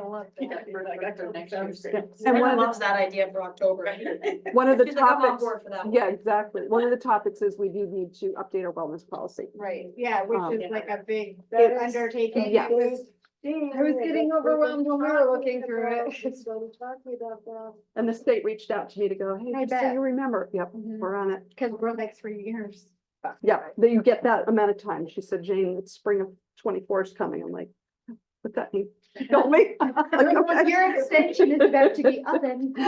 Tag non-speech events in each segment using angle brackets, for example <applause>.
<laughs> love Yeah, that. we're like, after next year's. And one Everyone <laughs> of the- loves that idea for October. <laughs> One of the She's like, I'm on topics, board for that one. yeah, exactly. One of the topics is we do need to update our wellness policy. Right, yeah, Um, which is like a big That is- undertaking. Yeah. It was- I was getting overwhelmed when we were looking through <laughs> it. So talking about that. And the state reached out to me to go, hey, I just so bet. you remember, yep, Mhm. we're on it. Cause we're like three years. Yeah, that you get that amount of time. She said, Jane, it's spring of twenty-four is coming. I'm like, what that mean? You <laughs> Don't me. Like, okay. Your extension is <laughs> about to be up and. <laughs>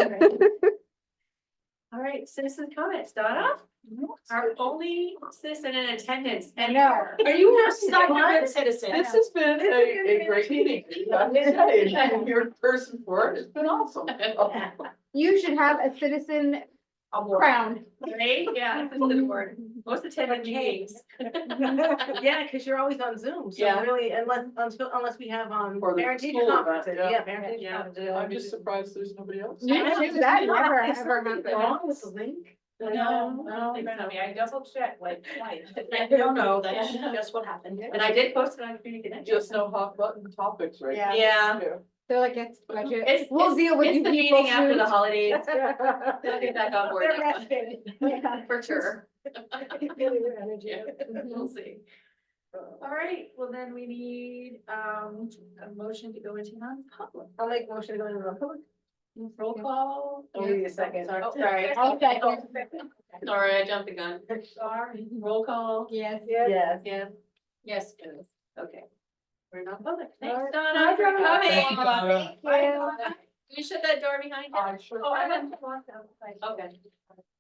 All right, citizen comments, Donna? Our only citizen in attendance I anywhere. Are you a second citizen? This has been a, a great meeting. I'm just saying, and You're a person for it. It's been awesome. You should have a citizen Award, crown. right? Yeah, this is an award. Most attended meetings. Yeah, because you're always on Zoom, Yeah. so really, unless, until, unless we have, um, Or the parent teacher school event, conferences, yeah. yeah, parent teacher Yeah. conferences. I'm just surprised there's nobody else. You I know, should, that never ever Something happened. Wrong with the link? No, no, I mean, I double checked <laughs> like twice. <laughs> No, <laughs> no, that's just what happened. And <laughs> I did post it on community connection. Just no hot button topics right Yeah. now. Yeah. They're like, it's budget. It's- We'll it's- deal with It's you the people meeting after soon. the holidays. They'll <laughs> They're get back on board They're next month, rested. <laughs> Yeah. for sure. energy. <laughs> We'll see. All right, well then we need um a motion to go into non-public. I'll make a motion to go into non-public. Roll call. Oh, we need a second. Oh, Sorry. I'll second. Sorry, I jumped the gun. Sorry. Roll call. Yes. Yes. Yeah. Yes, yes. Okay. We're not public. All Thanks, right. Donna, for Thank you, coming. Donna. Bye, Donna. Can you shut that door behind you? Oh, I sure- Oh, I went to walk outside. Okay.